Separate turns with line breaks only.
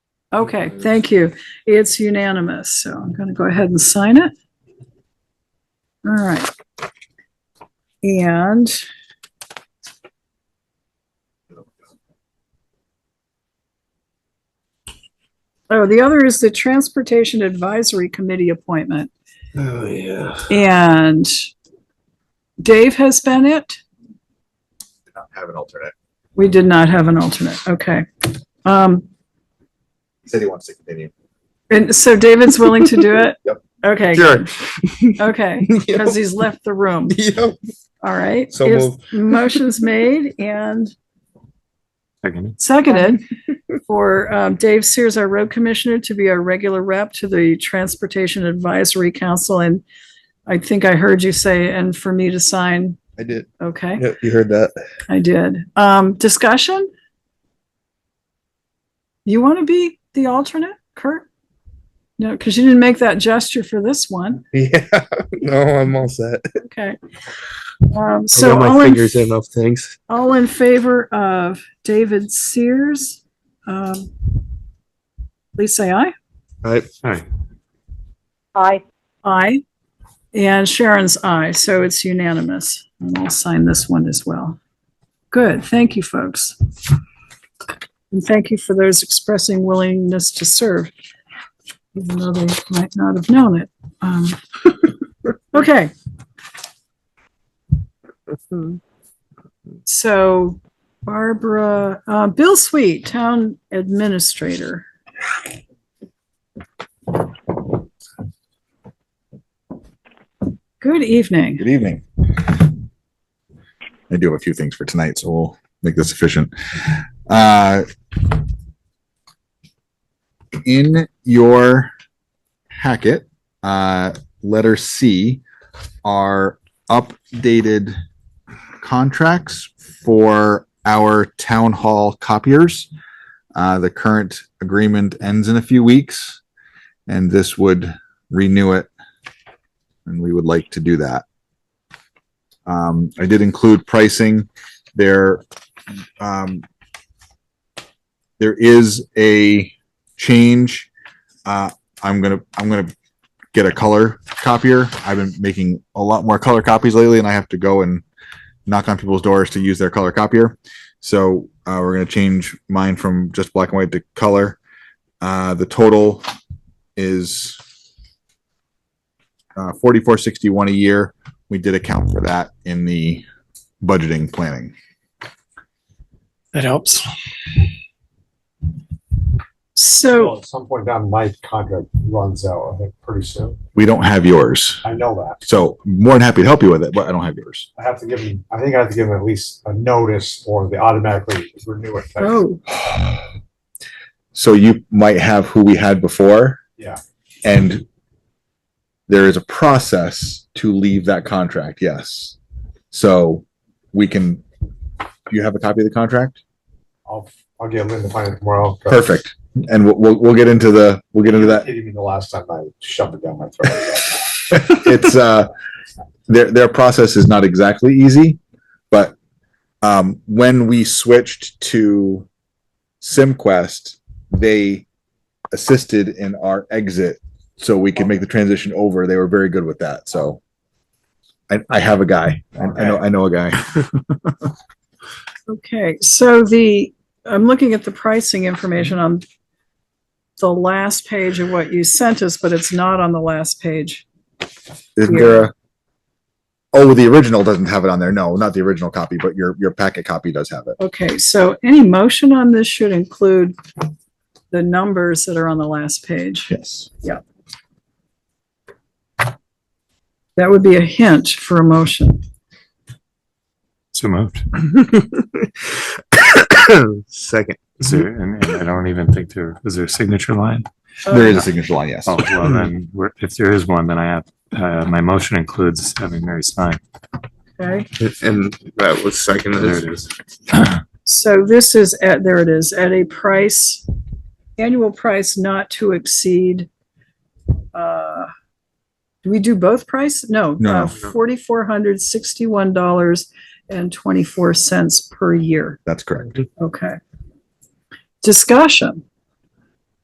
Okay, thank you. It's unanimous, so I'm going to go ahead and sign it. All right. And oh, the other is the Transportation Advisory Committee appointment.
Oh, yeah.
And Dave has been it?
did not have an alternate.
We did not have an alternate. Okay. Um,
He said he wants to continue.
and so David's willing to do it?
Yep.
Okay,
Sure.
okay, because he's left the room.
Yep.
All right.
So
Is- Motion's made and
Second.
seconded for um, Dave Sears, our road commissioner, to be our regular rep to the Transportation Advisory Council. And I think I heard you say, and for me to sign.
I did.
Okay,
Yep, you heard that.
I did. Um, discussion? You want to be the alternate, Kurt? No, because you didn't make that gesture for this one.
Yeah. No, I'm all set.
Okay. Um,
I
so
got
all
my
in
fingers in enough things.
All in favor of David Sears? um, Please say aye.
Right.
Hi.
Aye.
Aye. And Sharon's aye, so it's unanimous. And I'll sign this one as well. Good, thank you, folks. And thank you for those expressing willingness to serve, even though they might not have known it. Um, Okay. So Barbara, uh, Bill Sweet, Town Administrator. Good evening.
Good evening. I do have a few things for tonight, so we'll make this efficient. Uh, in your packet, uh, letter C are updated contracts for our town hall copiers. Uh, the current agreement ends in a few weeks, and this would renew it. And we would like to do that. Um, I did include pricing there. Um, there is a change. Uh, I'm gonna, I'm gonna get a color copier. I've been making a lot more color copies lately and I have to go and knock on people's doors to use their color copier. So, uh, we're gonna change mine from just black and white to color. Uh, the total is uh, forty-four sixty-one a year we did account for that in the budgeting planning.
That helps.
So,
Well, at some point down, my contract runs out, I think, pretty soon.
We don't have yours.
I know that.
So more than happy to help you with it, but I don't have yours.
I have to give him, I think I have to give him at least a notice or they automatically renew it.
oh,
So you might have who we had before.
Yeah.
And there is a process to leave that contract, yes. So we can, do you have a copy of the contract?
I'll, I'll get Lynn to find it tomorrow. 'cause
Perfect. And we'll, we'll, we'll get into the, we'll get into that.
Hitting me the last time I shoved it down my throat.
it's uh their their process is not exactly easy but um when we switched to simquest they assisted in our exit so we could make the transition over they were very good with that so i, I have a guy I, I know i know a guy
okay, so the, I'm looking at the pricing information on the last page of what you sent us, but it's not on the last page.
is there a oh the original doesn't have it on there no not the original copy but your your packet copy does have it
Okay, so any motion on this should include the numbers that are on the last page.
yes
That would be a hint for a motion.
So moved.
Second.
Is there, and and I don't even think there, is there a signature line?
there is a signature line yes
Oh, well, then, we're- if there is one, then I have, uh, my motion includes having Mary sign.
Okay,
And that was second.
There it is.
so this is at, there it is, at a price, annual price not to exceed, uh, do we do both price? No. uh,
No.
Forty-four hundred sixty-one dollars and twenty-four cents per year.
that's correct
Okay. Discussion.